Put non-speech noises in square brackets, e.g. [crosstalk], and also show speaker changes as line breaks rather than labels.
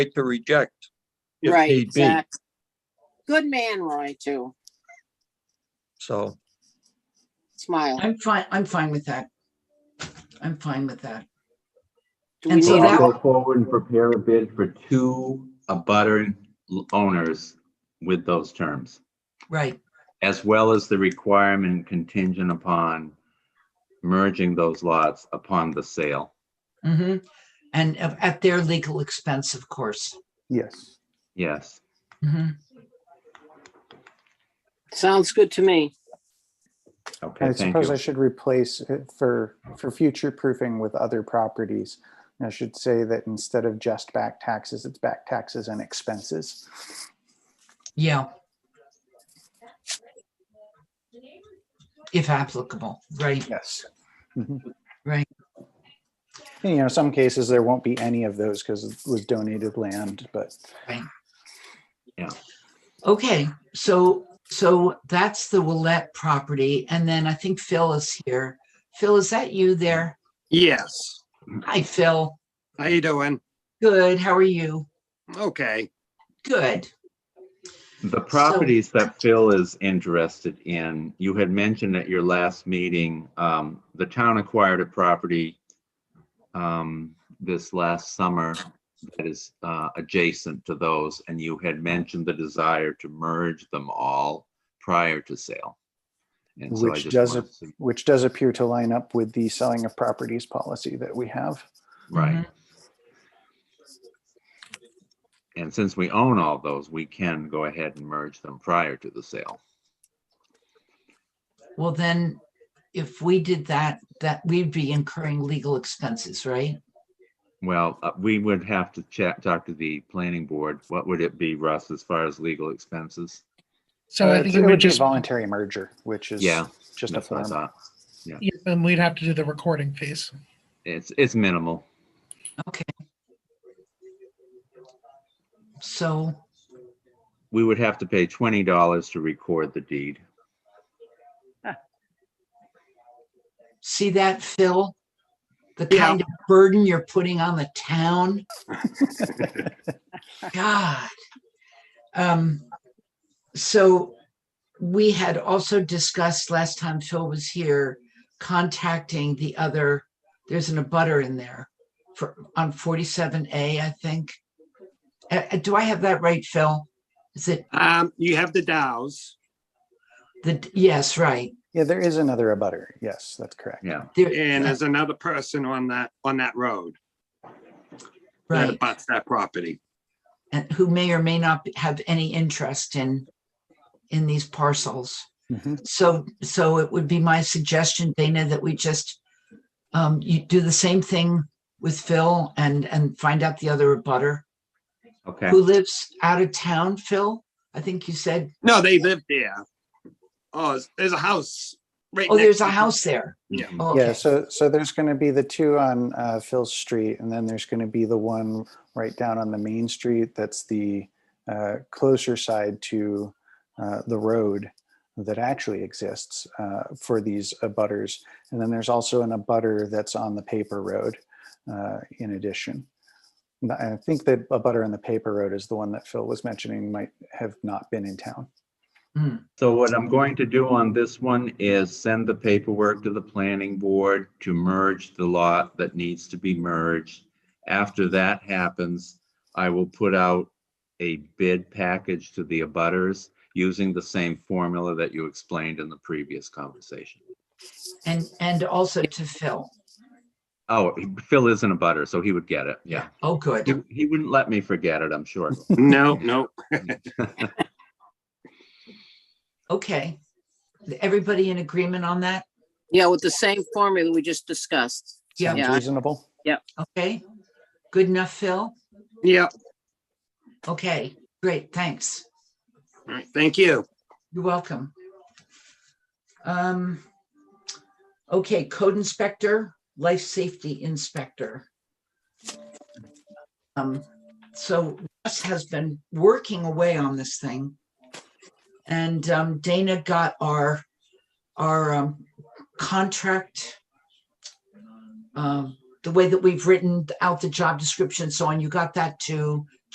right to reject. if
Right,
need be.
exactly. Good man, Roy, too.
So,
Smile.
I'm fine, I'm fine with that. I'm fine with that.
Do we
And so
need
that-
a-
Go forward and prepare a bid for two abutter owners with those terms,
Right,
as well as the requirement contingent upon merging those lots upon the sale.
hmm And of- at their legal expense, of course.
Yes.
Yes.
Mhm.
Sounds good to me.
And
Okay,
I
thank
suppose I
you.
should replace it for, for future proofing with other properties. And I should say that instead of just back taxes, it's back taxes and expenses.
Yeah. If applicable, right,
Yes.
Right.
Mm-hmm. You know, some cases there won't be any of those because it was donated land, but
okay, so, so that's the Willette property, and then I think Phil is here. Phil, is that you there?
Yes.
Hi, Phil,
How you doing?
good, how are you?
Okay.
Good,
The properties that Phil is interested in, you had mentioned at your last meeting, um, the town acquired a property um, this last summer that is, uh, adjacent to those, and you had mentioned the desire to merge them all prior to sale. And so I
Which
just
does
wanted to-
which does appear to line up with the selling of properties policy that we have.
Right. And since we own all those, we can go ahead and merge them prior to the sale.
well then, if we did that, that we'd be incurring legal expenses, right?
Well, uh, we would have to chat, talk to the planning board. What would it be, Russ, as far as legal expenses?
So
Uh,
I
it's-
think
it
it
would
would
be a
just,
voluntary merger, which is
Yeah,
just a
That's what I
form.
thought.
yeah, and we'd have to do the recording piece.
It's, it's minimal.
Okay. So,
We would have to pay twenty dollars to record the deed.
see that, Phil? The kind of burden you're putting on the town? God. Um, so we had also discussed last time Phil was here, contacting the other, there's an abutter in there for, on forty-seven A, I think. Uh, uh, do I have that right, Phil? Is it
Um, you have the Dows.
the, yes, right,
[laughs] Yeah, there is another abutter. Yes, that's correct.
Yeah.
there,
and there's another person on that, on that road that
right.
abuts that property.
and who may or may not be- have any interest in, in these parcels.
Mhm.
So, so it would be my suggestion, Dana, that we just, um, you do the same thing with Phil and, and find out the other abutter
Okay,
who lives out of town, Phil? I think you said,
No, they live there. Oh, there's- there's a house right
oh,
next
there's a
to-
house there.
Yeah.
Oh,
Yeah,
okay.
so, so there's going to be the two on uh, Phil Street, and then there's going to be the one right down on the main street that's the uh, closer side to uh, the road that actually exists uh, for these abutters. And then there's also an abutter that's on the paper road uh, in addition. And I think the abutter on the paper road is the one that Phil was mentioning might have not been in town.
so what I'm going to do on this one is send the paperwork to the planning board to merge the lot that needs to be merged. After that happens, I will put out a bid package to the abutters using the same formula that you explained in the previous conversation.
And, and also to Phil.
Oh, Phil isn't a butter, so he would get it. Yeah.
Oh,
He,
good.
he wouldn't let me forget it, I'm sure.
No, no.
Okay. Everybody in agreement on that?
Yeah, with the same formula we just discussed.
Yeah.
Sounds
Yeah.
reasonable.
Okay. Good enough, Phil?
Yeah,
Okay, great, thanks.
all right, thank you.
You're welcome. Um, okay, code inspector, life safety inspector. Um, so Russ has been working away on this thing. And um, Dana got our, our um, contract. uh, Um, the way that we've written out the job description and so on, you got that too.